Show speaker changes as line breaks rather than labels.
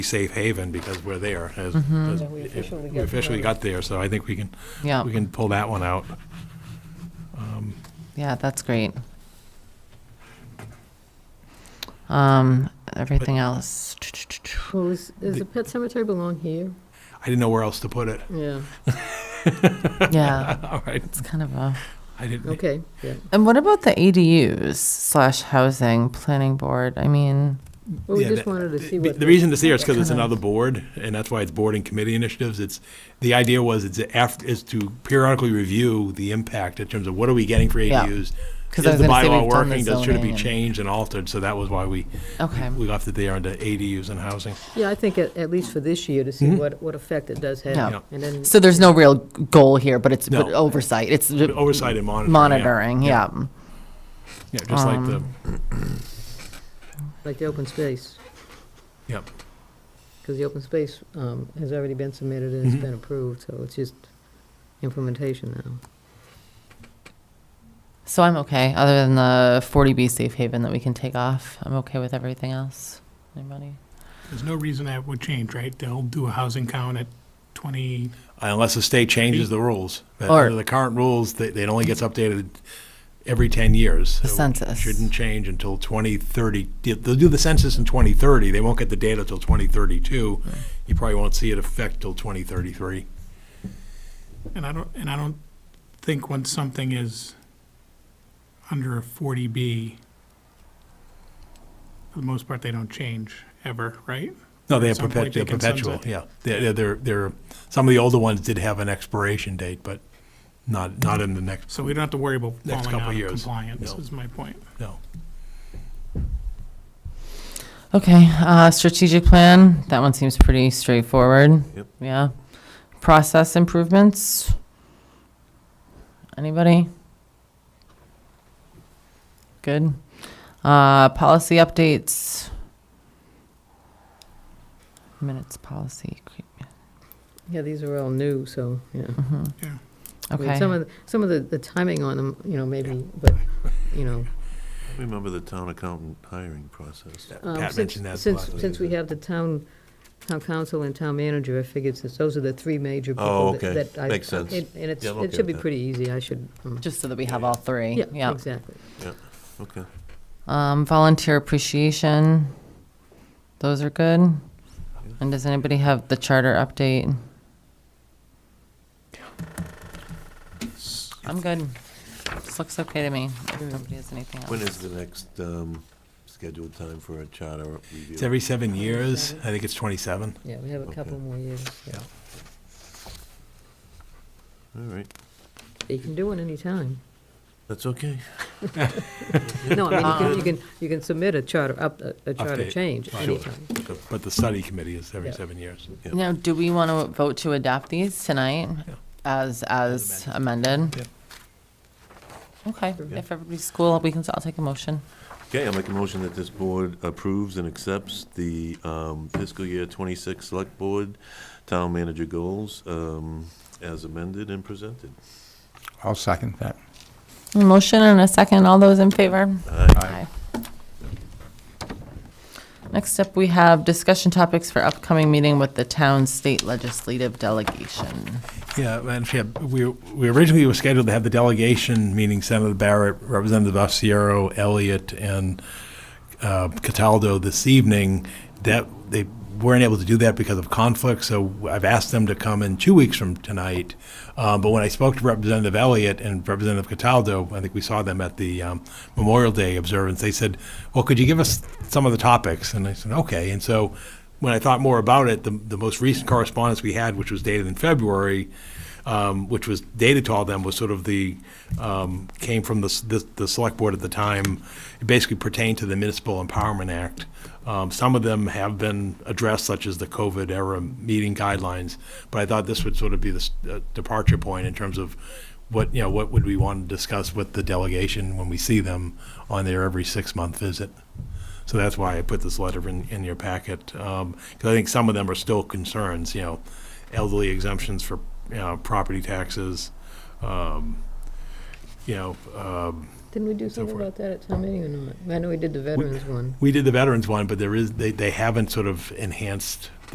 safe haven because we're there. as-
Mm-hmm.
as-
we officially
We
got
officially got there, so I think we can,
Yeah,
we can pull that one out.
yeah, that's great. Um, everything else.
Well, is, is the pet cemetery belong here?
I didn't know where else to put it.
Yeah,
Yeah,
All right,
it's kind of a.
I didn't,
okay, yeah.
And what about the ADUs slash housing planning board? I mean,
Well, we
Yeah,
just
the-
wanted to see
the
what.
the reason it's there is because it's another board, and that's why it's board and committee initiatives. It's, the idea was it's after, is to periodically review the impact in terms of what are we getting for
Yeah.
ADUs?
'Cause I
Is
was
the
gonna say
bylaw
we've done the
working? Does, should it
zoning
be
and-
changed and altered? So that was why we,
okay,
we left it there under ADUs and housing.
Yeah, I think at, at least for this year, to see
Mm-hmm.
what, what effect it does
Yeah.
have. And then,
so there's no real goal here, but it's but
No.
oversight. It's
Oversight and monitoring. yeah.
monitoring. Um, Yeah.
Yeah, just like the,
like the open space,
yeah.
because the open space um, has already been submitted and
Mm-hmm.
it's been approved, so it's just implementation now.
So I'm okay. Other than the 40B safe haven that we can take off, I'm okay with everything else. Anybody?
There's no reason that would change, right? They'll do a housing count at 20,
Uh, Unless the state changes the rules. But
Or-
Under the current rules, they- it only gets updated every 10 years.
The
So it
census.
Shouldn't change until 2030. They'll they'll do the census in 2030. They won't get the data till 2032. You probably won't see it affect till 2033.
and I don't, and I don't think when something is under a 40B, for the most part, they don't change ever, right?
No, they
At
have
some point,
perpet- they're
they can
perpetual,
sunset.
yeah. They're, they're- they're, some of the older ones did have an expiration date, but not, not in the next,
So we don't have to worry about
Next
falling
couple
out of
years.
compliance,
No.
is my point.
no.
Okay, uh, strategic plan, that one seems pretty straightforward.
Yep.
Yeah. Process improvements? Anybody? Good. Uh, policy updates? Minutes policy.
Yeah, these are all new, so, yeah. I mean,
Mm-hmm. Okay,
Some of, the- some of the, the timing on them, you know, maybe, but, you know.
Remember the town accountant hiring process.
Um,
Pat
since-
mentioned that.
Since,
last
since we
week.
have the town, town council and town manager, I figured since those are the three major people.
Oh,
that-
okay.
that I-
Makes sense.
And and it's,
Yeah, I'm
it
okay
should be
with that.
pretty easy, I should, um,
just so that we have all three,
yeah,
yeah.
exactly.
Okay.
Um, volunteer appreciation, those are good. And does anybody have the charter update? I'm good. This looks okay to me. If nobody has anything
When
else.
is the next um, scheduled time for a charter review?
It's every seven years. I think it's 27.
Yeah, we have a couple more years. yeah.
All right,
You can do it anytime.
that's okay.
No, I mean, you can, you can, you can submit a charter, up, a- a charter
Update,
change
right.
anytime.
But the study committee is every
Yeah.
seven years.
Yeah.
Now, do we want to vote to adopt these tonight
Yeah.
as, as amended? Okay,
Sure.
if everybody's cool, we can, I'll take a motion.
Okay, I'll make a motion that this board approves and accepts the um, fiscal year 26 Select Board Town Manager Goals um, as amended and presented.
I'll second that.
A Motion and a second. All those in favor? Aye. Next up, we have discussion topics for upcoming meeting with the town state legislative delegation.
Yeah, Madam Chair, we, we originally were scheduled to have the delegation, meaning Senator Barrett, Representative Osceola, Elliott, and uh, Cataldo this evening. That, they weren't able to do that because of conflict, so I've asked them to come in two weeks from tonight. Uh, But when I spoke to Representative Elliott and Representative Cataldo, I think we saw them at the um, Memorial Day observance, they said, well, could you give us some of the topics? And I said, okay. And so when I thought more about it, the, the most recent correspondence we had, which was dated in February, um, which was dated to all them, was sort of the, um, came from the, s- the, the select board at the time. It basically pertained to the Municipal Empowerment Act. Um, some of them have been addressed, such as the COVID era meeting guidelines, but I thought this would sort of be the s- uh, departure point in terms of what, you know, what would we want to discuss with the delegation when we see them on their every six-month visit. So that's why I put this letter in, in your packet, because I think some of them are still concerns, you know, elderly exemptions for, you know, property taxes, um, you know, um,
Didn't we do
So
something
forth.
about that at town meeting or not? I know we did the veterans one.
We did the veterans one, but there is, they, they haven't sort of enhanced